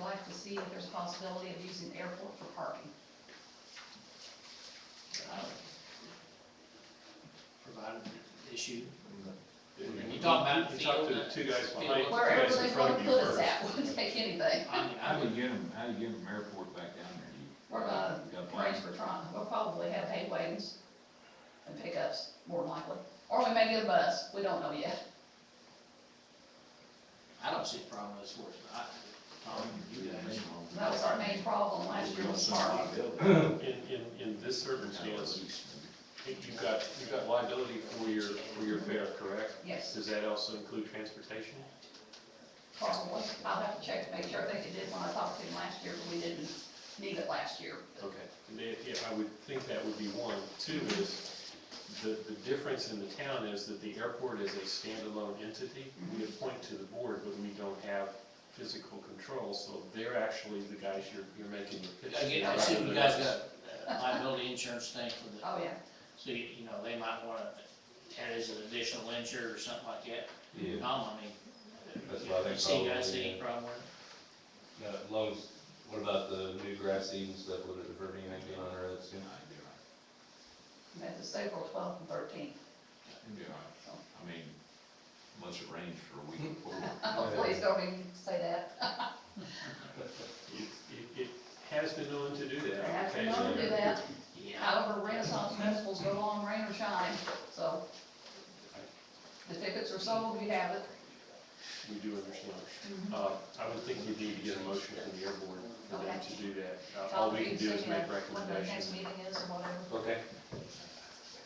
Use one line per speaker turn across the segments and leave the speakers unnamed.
like to see if there's possibility of using the airport for parking.
provided the issue.
When
You
you talk about
You talk to the
field,
two guys
field.
behind. you,
Wherever
guys in
they
front
want
of
to
you
put us
first.
at, we'll take anything.
I mean, I
How do
would,
you get them, how do you get them airport back down there? You
We're gonna
got a plan?
arrange for Tron, we'll probably have hay wagons and pickups, more than likely. Or we may get a bus, we don't know yet.
I don't see a problem with sports, but I, Tom, you guys,
That was our main problem last year was parking.
Liability.
In, in, in this circumstance, you- you've got, you've got liability for your, for your fare, correct?
Yes,
Does that also include transportation?
probably. I'll have to check to make sure. I think it did when I talked to him last year, but we didn't need it last year.
Okay. And then, yeah, I would think that would be one. Two is, the, the difference in the town is that the airport is a standalone entity. We appoint to the board, but we don't have physical control, so they're actually the guys you're, you're making your pitch.
again, I
to.
assume you guys got uh, liability insurance thing for the,
Oh, yeah.
so you, you know, they might wanna add as an additional insured or something like that.
Yeah.
Tom, I mean.
That's what I think
See, you guys
probably,
see any
yeah.
problem with it?
No, as long as, what about the new grass seeds and stuff, would it prevent anything being on our roads?
Then I'd be right.
That was April twelfth and thirteenth.
It'd be all right. I mean, unless it rains for a week before.
Oh, Please don't even say that.
It, it, it has been known to do
I
that.
have to
occasionally.
know to do that.
Yeah.
However, Renaissance festivals go on, rain or shine, so. The tickets are sold, we have it.
We do understand. Uh, I would think we need to get a motion from the airborne for them to do that. Uh, All we can do is make
When the next
recommendations.
meeting is or whatever.
Okay.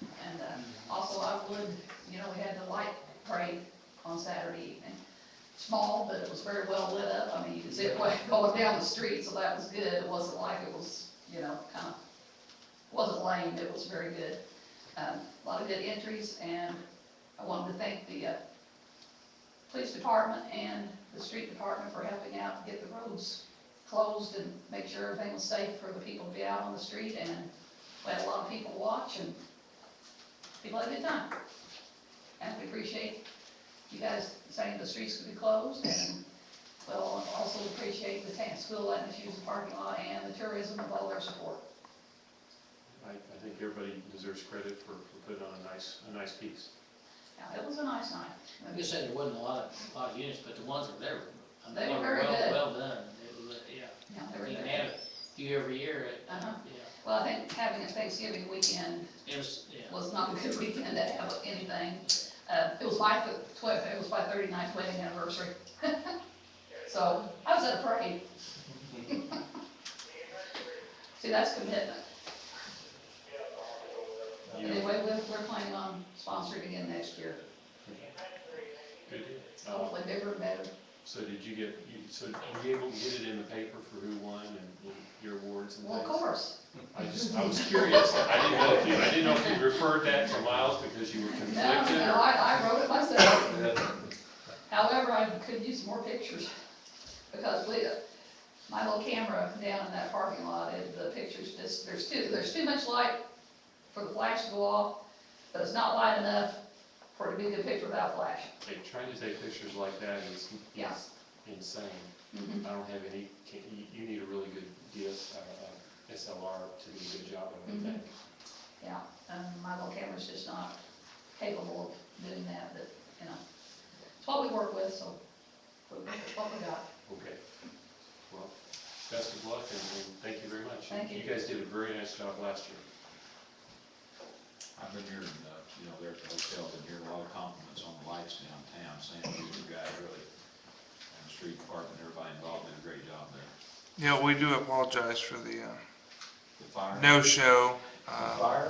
And uh, also I would, you know, we had the light parade on Saturday evening. Small, but it was very well lit up. I mean, you could see it wa- going down the street, so that was good. It wasn't like it was, you know, kind of, wasn't lame, it was very good. Um, A lot of good entries, and I wanted to thank the uh, police department and the street department for helping out to get the roads closed and make sure everything was safe for the people to be out on the street. And we had a lot of people watch, and people had a good time. And we appreciate you guys saying the streets could be closed, and we'll also appreciate the Tank School letting us use the parking lot and the tourism with all their support.
I, I think everybody deserves credit for, for putting on a nice, a nice piece.
Now, it was a nice night.
Like I said, there wasn't a lot of, a lot of units, but the ones that were there, I mean,
They were
they were
very
well,
good.
well done. It was, uh, yeah,
Now, they were
you can
there.
have a few every year, it,
Uh-huh.
yeah,
Well, I think having a Thanksgiving weekend
it was, yeah.
was not a good weekend to have anything. Uh, it was my twelve, it was my 39th wedding anniversary. So, I was at a parade. See, that's commitment.
You-
Anyway, we're, we're planning on sponsoring again next year,
good. Uh,
hopefully bigger and better.
So did you get, you, so were you able to get it in the paper for who won and your awards and things?
Well, of course,
I just, I was curious. I didn't know if you, I didn't know if you referred that to Miles because you were
no,
conflicted
no,
or-
I, I wrote it myself,
Yeah.
however, I could use more pictures, because we, my little camera down in that parking lot, it- the pictures just, there's too, there's too much light for the flash to go off, but it's not light enough for it to be a good picture without flash,
Hey, trying to take pictures like that is,
Yeah.
is insane.
Mhm.
I don't have any, can, you, you need a really good DS, uh, uh, SLR to do a good job of
Mhm.
that.
yeah. Um, my little camera's just not capable of doing that, but, you know, it's what we work with, so, we'll work with what we got.
Okay. Well, best of luck and, and thank you very much.
Thank you.
You guys did a very nice job last year.
I've been hearing, uh, you know, there at the hotel, been hearing a lot of compliments on the lights downtown, saying you guys really, and the street department, everybody involved did a great job there.
Yeah, we do apologize for the uh,
The fire.
no-show. uh,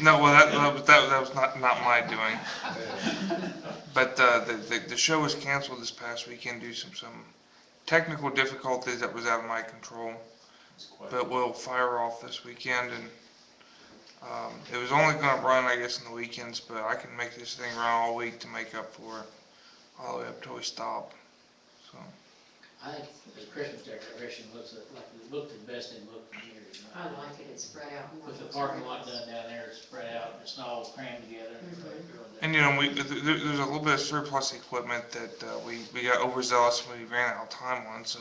No, well, that, that was- that, that was not, not my doing. But uh, the, the, the show was canceled this past weekend due to some, some technical difficulties that was out of my control.
It's quite-
But we'll fire off this weekend and, um, it was only gonna run, I guess, in the weekends, but I can make this thing run all week to make up for it, all the way up till we stop, so.
I think the Christmas decoration looks like, it looked the best it looked in years. you know.
I like it, it's spread out more.
With the parking lot done down there, it's spread out, it's not all crammed together and everybody
Mm-hmm.
really-
And you know, we, th- th- there's a little bit of surplus equipment that uh, we, we got overzealous when we ran out of time on, so